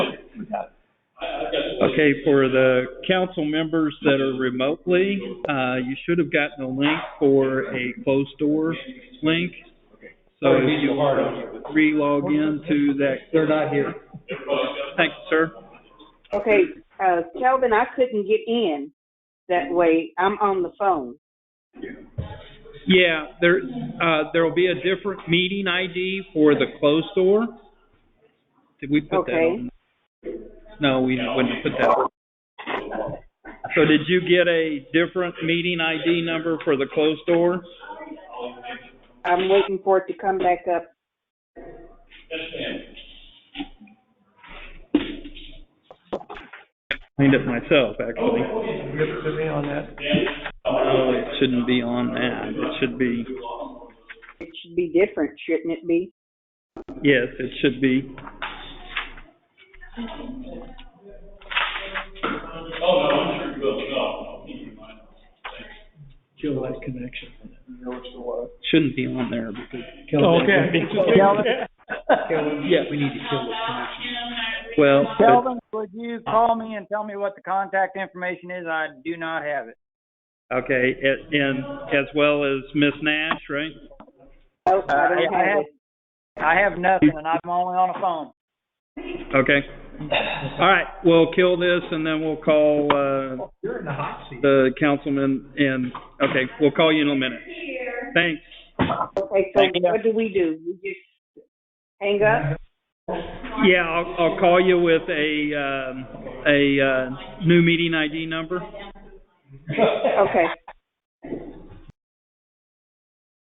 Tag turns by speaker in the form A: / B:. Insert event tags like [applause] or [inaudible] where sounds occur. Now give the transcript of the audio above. A: Okay, for the council members that are remotely, uh, you should have gotten a link for a closed door link. So if you re-log in to that. They're not here. Thank you, sir.
B: Okay, uh, Kelvin, I couldn't get in that way. I'm on the phone.
A: Yeah, there, uh, there'll be a different meeting ID for the closed door. Did we put that
B: Okay.
A: on? No, we wouldn't put that on. So did you get a different meeting ID number for the closed door?
B: I'm waiting for it to come back up.
A: Cleaned it myself, actually. No, it shouldn't be on that. It should be,
B: It should be different, shouldn't it be?
A: yes, it should be.
C: Kill that connection.
A: Shouldn't be on there because,
D: Oh,
C: [laughs] Okay.
A: yeah, we need to kill this connection. Well, but-
D: Kelvin, would you call me and tell me what the contact information is? I do not have it.
A: okay, a- and as well as Miss Nash, right?
B: Oh,
D: Uh,
B: I don't
D: yeah, I
B: have
D: have-
B: it.
D: I have nothing, and I'm only on a phone.
A: Okay. All right, we'll kill this and then we'll call, uh,
C: You're in the hot seat.
A: the councilman and, okay, we'll call you in a minute. Thanks.
B: Okay,
D: Thank you.
B: so what do we do? We just hang
D: [laughs]
B: up?
A: Yeah, I'll, I'll call you with a, um, a, uh, new meeting ID number.
B: Okay.